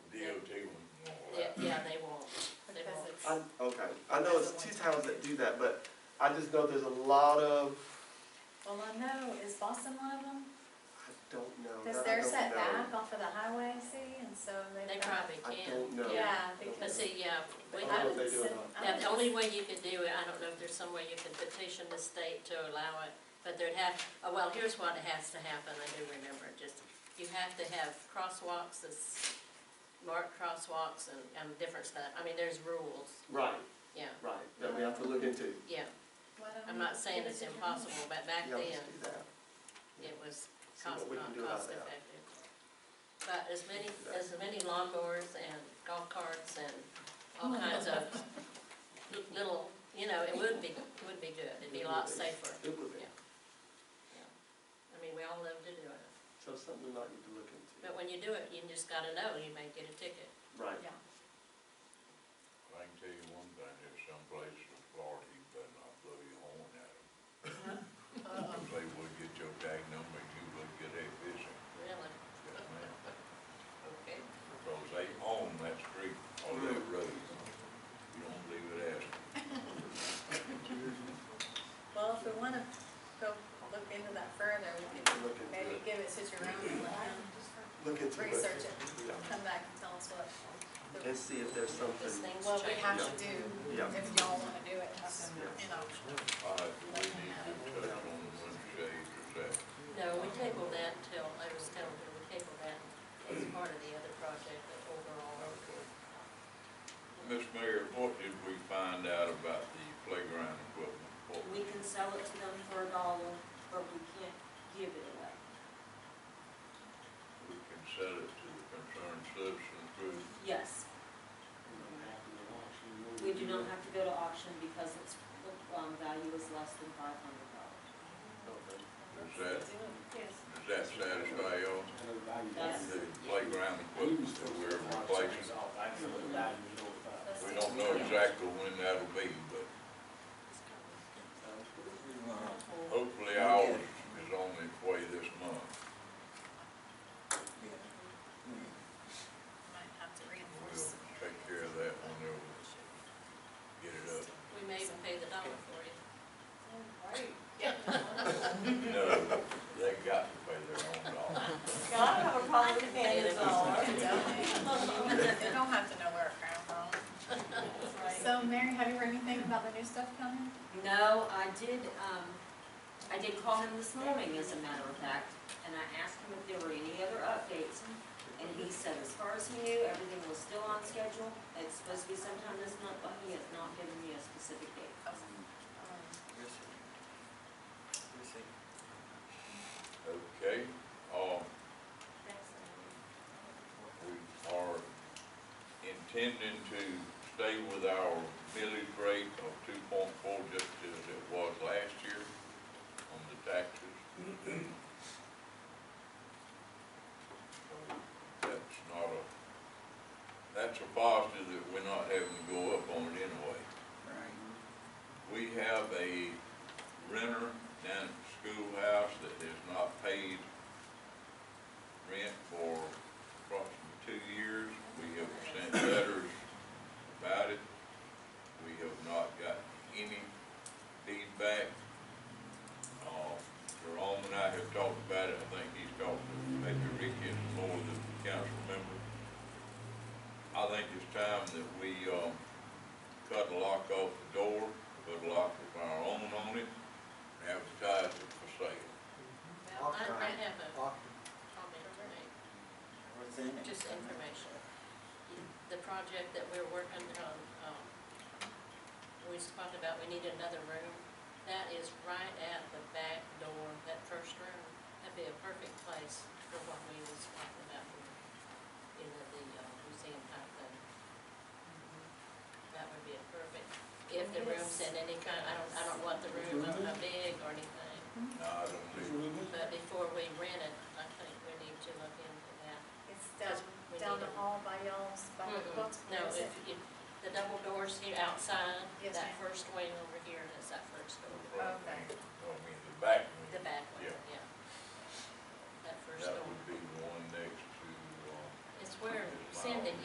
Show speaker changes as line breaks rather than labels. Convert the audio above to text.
Okay, I know it's two towns that do that, but I just know there's a lot of,
Well, I know, is Boston one of them?
I don't know.
Because
that I
they're
don't
set
know.
back off of the highway, see, and so they've
They
got.
probably
I don't
can.
know.
Yeah,
Yeah,
I don't
but
because-
know.
see, yeah, we,
I don't know if
now,
they
I
do or
would
not.
send- I would
the only way you can do it, I don't know if there's some way you can petition the state to allow it, but there'd have, oh, well, here's what has to happen, I do remember, just, you have to have crosswalks, this marked crosswalks and, and different stuff, I mean, there's rules,
Right,
yeah,
right, that we have to look into.
yeah.
Why don't
I'm
we
not saying
give it
it's
to them?
impossible, but back
Yeah, let's
then,
do that.
it was
See
cost,
what we can
not
do about
cost
that.
effective. But as many, as many lawnmowers and golf carts and all kinds of little, you know, it would be, it would be good, it'd be a lot safer.
It would be,
Yeah. I mean, we all love to do it,
so something we might need to look into.
but when you do it, you just gotta know, you may get a ticket.
Right,
Yeah,
I can tell you one thing, there's some places in Florida, you better not blow your horn at them.
Uh-uh.
Uh-oh.
They will get your tag number, you look good at fishing,
Really?
yes ma'am.
Okay.
Because they own that street or that
Mm-hmm.
road. You don't leave it as,
well, if we wanna go look into that further, we
we
could
can look into
maybe
it,
give it to Jerome and let him
look into it.
research it,
Yeah.
come back and tell us what, the-
And see if there's
These
something,
things
what we have
change.
to do,
Yeah.
if y'all wanna do it, that's, you know.
all right, do we need to touch on the shade or that?
No, we table that till, I was telling you, we table that as part of the other project, the overall.
Okay. Ms. Mayor, what did we find out about the playground equipment? What
We can sell it to them for a dollar, but we can't give it away.
we can sell it to the concerned citizen through
Yes, we do not have to go to auction because its um, value is less than five hundred dollars.
Okay.
Is that,
Yes.
does that satisfy y'all?
Yes.
The playground equipment that we're replacing? We don't know exactly when that'll be, but hopefully ours is on its way this month.
Might have to
We'll
reinforce.
take care of that when they'll get it up.
We may even pay the dollar for it.
No, they got to pay their own dollar.
Yeah, I don't have a problem with
paying a dollar.
They don't have to know where it came from. So Mary, have you heard anything about the new stuff coming?
No, I did, um, I did call him this morning, as a matter of fact, and I asked him if there were any other updates. And he said, as far as he knew, everything was still on schedule. It's supposed to be sometime this month, but he has not given me a specific date.
Um,
Okay, um, we are intending to stay with our millage rate of two point four, just as it was last year on the taxes. So That's not a, that's a positive that we're not having to go up on it anyway. We have a renter down at the schoolhouse that has not paid rent for approximately two years. We have sent letters about it. We have not got any feedback. Uh, Jerome and I have talked about it. I think he's talked to maybe Ricky and some more of the council members. I think it's time that we, um, cut a lock off the door, put a lock of our own on it, and advertise it for sale.
Well, I, I have a comment to make. Just information. The project that we're working on, um, we was talking about, we need another room. That is right at the back door, that first room. That'd be a perfect place for what we was talking about in the, the uh, museum type thing. That would be a perfect, if the room's in any kind, I don't, I don't want the room, I don't know, big or anything.
Now, I don't think,
But before we rent it, I think we need to look into that.
It's
Because
down,
we
down
need
the
it.
hall by y'all's, by the
Mm-mm.
books.
No,
is
if,
it?
if, the double doors here outside,
Yes,
that
ma'am.
first wing over here, that's that first door,
the front wing, I mean, the back
the
wing,
back one,
Yeah.
yeah. That first
that
door.
would be the one next to, um,
It's where Cindy